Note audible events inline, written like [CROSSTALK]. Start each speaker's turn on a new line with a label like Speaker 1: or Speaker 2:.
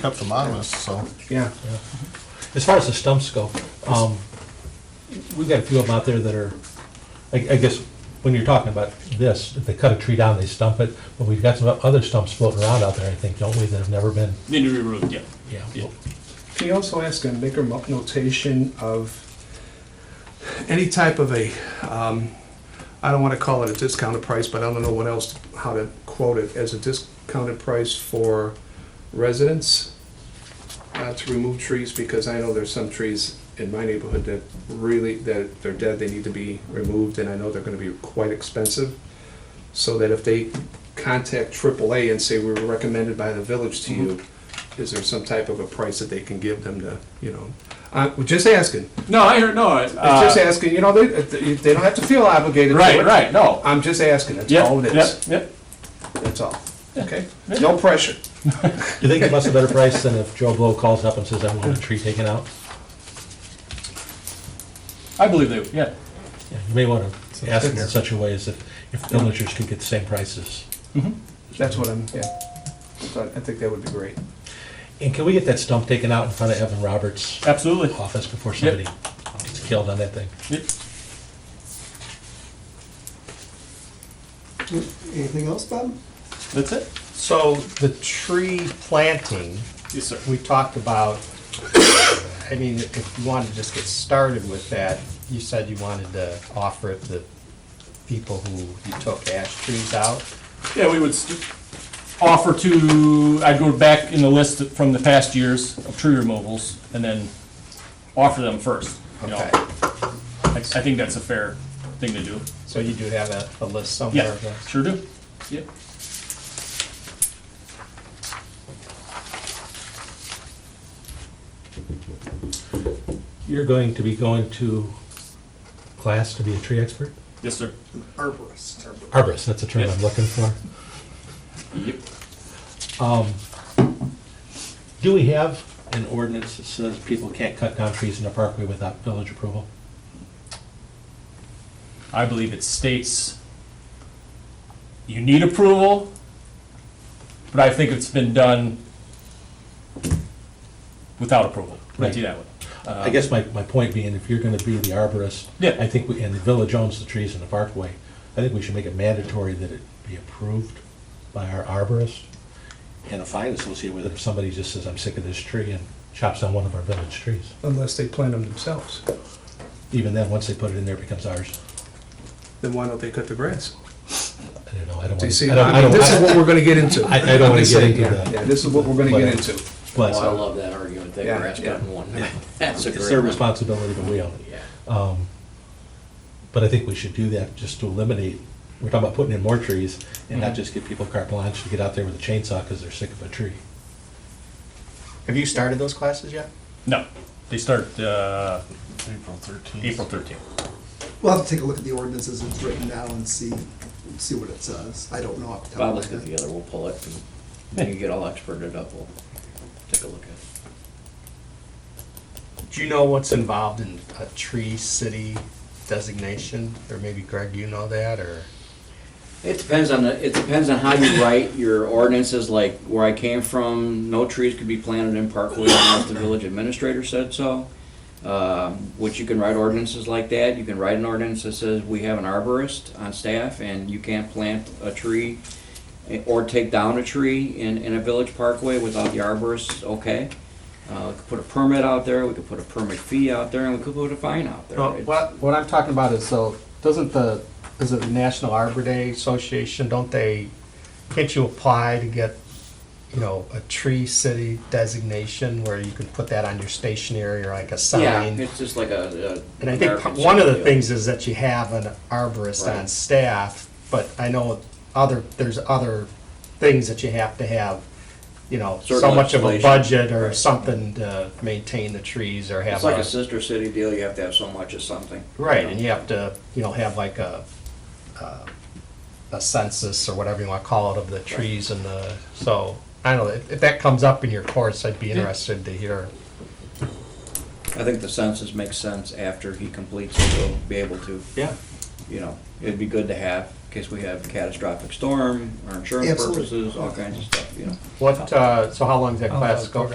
Speaker 1: kept them honest, so.
Speaker 2: Yeah.
Speaker 3: As far as the stumps go, um, we've got a few of them out there that are, I, I guess, when you're talking about this, if they cut a tree down, they stump it, but we've got some other stumps floating around out there, I think, don't we, that have never been,
Speaker 4: Need to be removed, yeah.
Speaker 3: yeah.
Speaker 4: Yeah.
Speaker 2: Can you also ask and make a mo- notation of any type of a, um, I don't want to call it a discounted price, but I don't know what else, how to quote it, as a discounted price for residents uh, to remove trees, because I know there's some trees in my neighborhood that really, that they're dead, they need to be removed, and I know they're going to be quite expensive. So that if they contact AAA and say, we were recommended by the village to you,
Speaker 3: Mm-hmm.
Speaker 2: is there some type of a price that they can give them to, you know? Uh, we're just asking.
Speaker 4: No, I heard, no, I-
Speaker 2: I'm just
Speaker 4: uh,
Speaker 2: asking, you know, they, they don't have to feel obligated. to
Speaker 4: right,
Speaker 2: it.
Speaker 4: right, no.
Speaker 2: I'm just asking, that's
Speaker 4: Yep,
Speaker 2: all it is,
Speaker 4: Yep, yep.
Speaker 2: that's all, okay? No pressure.
Speaker 3: Do you think it must a better price than if Joe Blow calls up and says, I want a tree taken out?
Speaker 4: I believe they, yeah.
Speaker 3: Yeah, You may want to ask it in such a way as if, if villagers could get the same prices.
Speaker 2: That's what I'm, yeah. So I think that would be great.
Speaker 3: And can we get that stump taken out in front of Evan Roberts'
Speaker 4: Absolutely.
Speaker 3: office before somebody gets killed on that thing?
Speaker 4: Yep.
Speaker 5: Anything else, Bob?
Speaker 4: That's it?
Speaker 5: So the tree planting,
Speaker 4: Yes, sir.
Speaker 5: we talked about, I mean, if you wanted to just get started with that, you said you wanted to offer it to people who you took ash trees out.
Speaker 4: Yeah, we would st- offer to, I'd go back in the list from the past years of tree removals and then offer them first. you know.
Speaker 5: Okay,
Speaker 4: I, I think that's a fair thing to do.
Speaker 5: so you do have a, a list somewhere
Speaker 4: Yeah,
Speaker 5: of those?
Speaker 4: sure do. Yep.
Speaker 3: You're going to be going to class to be a tree expert?
Speaker 4: Yes, sir.
Speaker 3: Arborist, that's the term I'm looking for. Um,
Speaker 4: Yep.
Speaker 3: Do we have an ordinance that says people can't cut down trees in the parkway without village approval?
Speaker 4: I believe it states you need approval, but I think it's been done without approval. Let's do that one.
Speaker 3: I guess my, my point being, if you're gonna be the arborist,
Speaker 4: Yeah.
Speaker 3: I think, we and the village owns the trees in the parkway, I think we should make it mandatory that it be approved by our arborist and a fine associated with it. If somebody just says, I'm sick of this tree and chops down one of our village trees,
Speaker 2: Unless they plant them themselves,
Speaker 3: even then, once they put it in there, it becomes ours.
Speaker 2: then why don't they cut the grass?
Speaker 3: I don't know, I don't
Speaker 2: Do
Speaker 3: wanna.
Speaker 2: you see,
Speaker 3: I don't- I
Speaker 2: I mean,
Speaker 3: don't-
Speaker 2: this [LAUGHS] is what we're gonna get into.
Speaker 3: I- I don't wanna
Speaker 2: I'm just
Speaker 3: get
Speaker 2: saying,
Speaker 3: into
Speaker 2: yeah,
Speaker 3: that.
Speaker 2: Yeah, this is what we're gonna get
Speaker 3: But-
Speaker 2: into.
Speaker 3: But-
Speaker 6: Oh, I love that argument, that
Speaker 2: Yeah,
Speaker 6: grass
Speaker 2: yeah.
Speaker 6: cutting one. [LAUGHS] That's a
Speaker 3: It's their
Speaker 6: great one.
Speaker 3: responsibility, but we own it.
Speaker 6: Yeah.
Speaker 3: Um, But I think we should do that just to eliminate, we're talking about putting in more trees and not just give people carte blanche to get out there with a chainsaw because they're sick of a tree.
Speaker 5: Have you started those classes yet?
Speaker 4: No, they start uh,
Speaker 1: April thirteenth.
Speaker 4: April 13th.
Speaker 7: We'll have to take a look at the ordinance as it's written now and see, see what it says. I don't know off the top
Speaker 6: Bob,
Speaker 7: of my
Speaker 6: let's
Speaker 7: head.
Speaker 6: get together, we'll pull it, and when you get all experted up, we'll take a look at it.
Speaker 5: Do you know what's involved in a tree city designation? Or maybe Greg, you know that, or?
Speaker 6: It depends on the, it depends on how you write your ordinances, like where I came from, no trees could be planted in parkways unless the village administrator said so. Uh, Which you can write ordinances like that, you can write an ordinance that says we have an arborist on staff and you can't plant a tree eh, or take down a tree in, in a village parkway without the arborist, okay. Uh, We could put a permit out there, we could put a permit fee out there, and we could put a fine out there.
Speaker 5: No,
Speaker 6: It's-
Speaker 5: what, what I'm talking about is, so, doesn't the, is it the National Arbor Day Association, don't they, can't you apply to get, you know, a tree city designation where you can put that on your stationery or like a
Speaker 6: Yeah,
Speaker 5: sign?
Speaker 6: it's just like a. a
Speaker 5: And I think
Speaker 6: American
Speaker 5: one of the
Speaker 6: Circle.
Speaker 5: things is that you have an arborist on
Speaker 6: Right.
Speaker 5: staff, but I know other, there's other things that you have to have, you know, so
Speaker 6: Certain
Speaker 5: much of a
Speaker 6: legislation.
Speaker 5: budget or something to maintain the trees or have.
Speaker 6: It's like
Speaker 5: a-
Speaker 6: a sister city deal, you have to have so much of something.
Speaker 5: Right, and you have to, you know, have like a, uh, a census or whatever you want to call it of the trees and the, so, I don't know, if if that comes up in your course, I'd be interested to hear.
Speaker 6: I think the census makes sense after he completes it, we'll be able to,
Speaker 5: Yeah.
Speaker 6: you know, it'd be good to have, in case we have a catastrophic storm, or insurance
Speaker 7: Absolutely.
Speaker 6: purposes, all kinds of stuff, you know.
Speaker 2: Oh,
Speaker 5: What, uh, so how long does that class go?